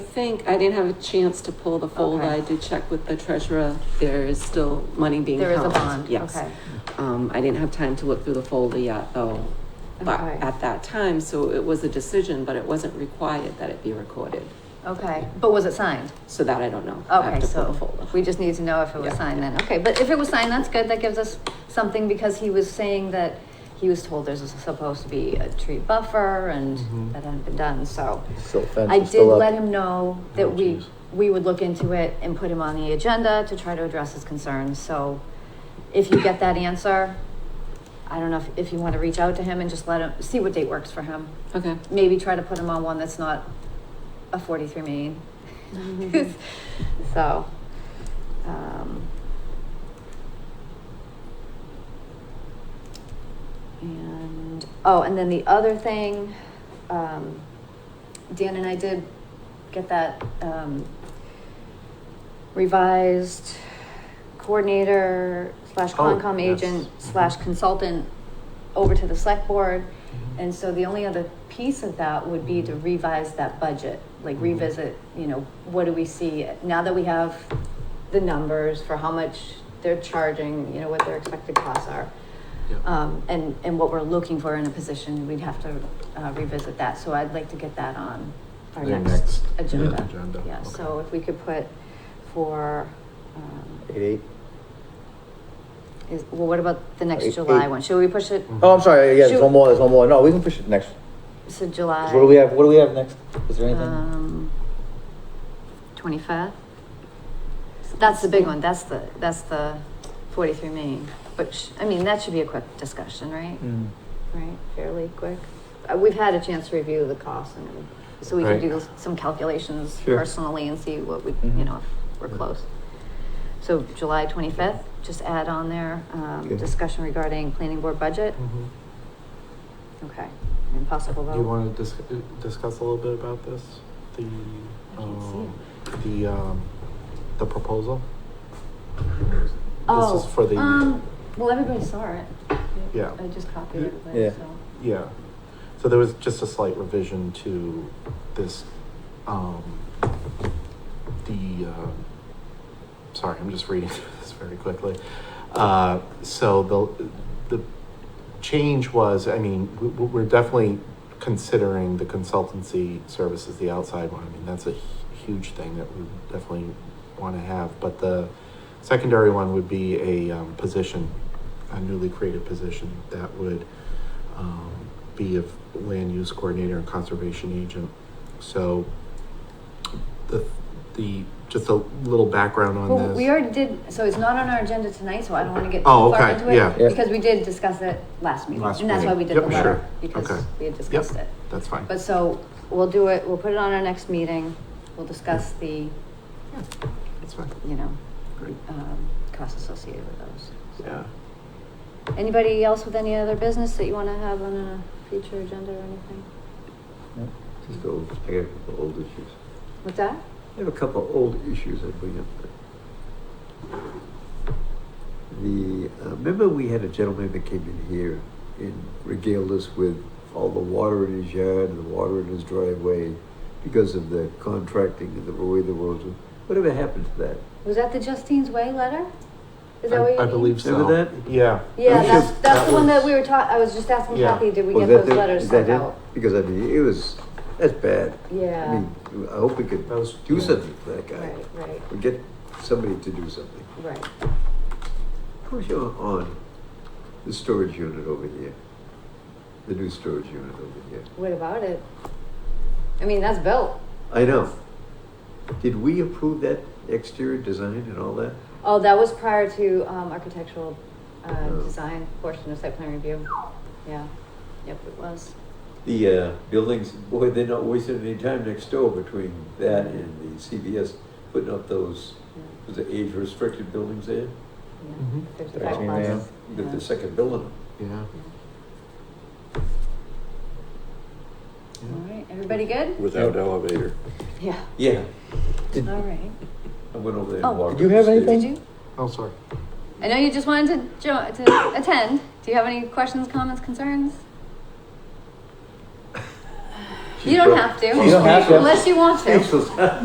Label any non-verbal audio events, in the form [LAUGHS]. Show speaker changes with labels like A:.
A: think, I didn't have a chance to pull the fold.
B: Okay.
A: I did check with the treasurer. There is still money being
B: There
A: held.
B: is a bond,
A: Yes.
B: okay.
A: Um, I didn't have time to look through the folder yet, though. But
B: Okay.
A: at that time, so it was a decision, but it wasn't required that it be recorded.
B: Okay, but was it signed?
A: So that I don't know. I have
B: Okay,
A: to pull the
B: so
A: folder.
B: we just need to know if it was
A: Yeah.
B: signed then. Okay, but if it was signed, that's good. That gives us something because he was saying that he was told there's supposed to be a tree buffer and
A: Mm-hmm.
C: Mhm.
B: that hadn't been done, so.
C: So fence
B: I
C: is
B: did
C: still up.
B: let him know
C: Oh,
B: that we,
C: geez.
B: we would look into it and put him on the agenda to try to address his concerns, so if you get that answer, I don't know if, if you want to reach out to him and just let him, see what date works for him.
A: Okay.
B: Maybe try to put him on one that's not a forty-three meeting. So, um. And, oh, and then the other thing, um, Dan and I did get that, um, revised coordinator slash
C: Oh,
B: Concom
C: yes. Mm-hmm.
B: agent slash consultant over to the select board. And so the only other piece of that would be to revise that budget, like
C: Mhm.
B: revisit, you know, what do we see now that we have the numbers for how much they're charging, you know, what their expected costs are.
C: Yeah.
B: Um, and, and what we're looking for in a position, we'd have to uh, revisit that. So I'd like to get that on our
C: The
B: next
C: next
B: agenda.
C: agenda,
B: Yeah,
C: okay.
B: so if we could put for, um,
C: Eight, eight.
B: is, well, what about the next
D: Eight-
B: July
D: eight.
B: one? Should we push it?
D: Oh, I'm sorry, yeah,
B: Should-
D: there's one more, there's one more, no, we can push it next, 'Cause
B: So July.
D: what do we have, what do we have next, is there anything?
B: Um, twenty-fifth? That's the big one, that's the, that's the forty-three Main, which, I mean, that should be a quick discussion, right?
D: Mm.
B: Right, fairly quick. Uh, we've had a chance to review the costs and, everything, so we can
C: Right.
B: do some calculations
D: Sure.
B: personally and see what we, you
D: Mhm.
B: know, if we're close. So July twenty-fifth, just add on there, um,
D: Okay.
B: discussion regarding planning board budget,
C: Mhm.
B: okay, impossible vote.
C: Do you want to dis- discuss a little bit about this? The,
B: I can't see
C: um, the, um, the proposal?
B: Oh,
C: This is for the,
B: um, well, everybody saw it.
C: Yeah.
B: I just copied everybody,
D: Yeah.
B: so.
C: yeah. So there was just a slight revision to this, um, the, uh, sorry, I'm just reading [LAUGHS] through this very quickly. Uh, so the, the change was, I mean, we, we're definitely considering the consultancy services, the outside one. I mean, that's a hu- huge thing that we definitely want to have. But the secondary one would be a um, position, a newly created position that would um, be of land use coordinator and conservation agent. So the, the, just a little background on
B: Well,
C: this.
B: we already did, so it's not on our agenda tonight, so I don't wanna get too
C: Oh,
B: far
C: okay,
B: into it.
C: yeah.
D: Yeah.
B: Because we did discuss it last meeting,
C: Last
B: and that's why we did the
C: meeting. Yep,
B: letter,
C: sure. Okay.
B: because we had discussed it.
C: That's fine.
B: But so, we'll do it, we'll put it on our next meeting, we'll discuss the,
C: Yeah, That's fine.
B: you know,
C: Great.
B: um, costs associated with those. So-
C: Yeah.
B: Anybody else with any other business that you wanna have on a future agenda or anything?
D: Yeah.
E: Just old, I got a couple old issues.
B: What's that?
E: I have a couple old issues I'd bring up. The, uh, remember we had a gentleman that came in here and regaled us with all the water in his yard and the water in his driveway because of the contracting and the way the roads were, whatever happened to that?
B: Was that the Justine's Way letter? Is that
C: I-
B: what you mean?
C: I believe so.
E: Remember that?
C: Yeah.
B: Yeah,
E: That
B: that's,
E: was-
B: that's the one
C: was-
B: that we were taught, I was just asking
C: Yeah.
B: Kathy, did we
E: Was
B: get
E: that
B: those
E: the-
B: letters
E: is that
B: sent
E: it?
B: out?
E: Because I mean, it was, that's bad. I
B: Yeah,
E: mean, I hope we could
C: That was-
E: do something for that guy.
B: right, right,
E: We get somebody to do something.
B: right.
E: Push on, on the storage unit over here. The new storage unit over here.
B: What about it? I mean, that's built.
E: I know. Did we approve that exterior design and all that?
B: Oh, that was prior to, um, architectural, uh,
E: Oh.
B: design portion of site plan review. Yeah, yep, it was.
E: The uh, buildings, boy, they're not wasting any time next door between that and the CVS putting up those,
B: Yeah,
E: was it age restricted buildings
B: yeah.
E: there?
C: Mhm.
B: There's the
E: Thirteen
B: back
D: man.
B: lots,
E: They're
B: yeah.
E: the second building.
C: Yeah.
B: All right, everybody good?
F: without elevator.
B: Yeah,
E: Yeah,
D: Did,
B: all right.
E: I went over there
B: Oh.
E: and walked.
D: Did you
E: up the
D: have
E: stairs.
D: anything?
B: Did you?
C: Oh, sorry.
B: I know you just wanted to jo- to attend. Do you have any questions, comments, concerns? You don't have to.
D: You don't have to.
B: Unless you want to.
E: She's-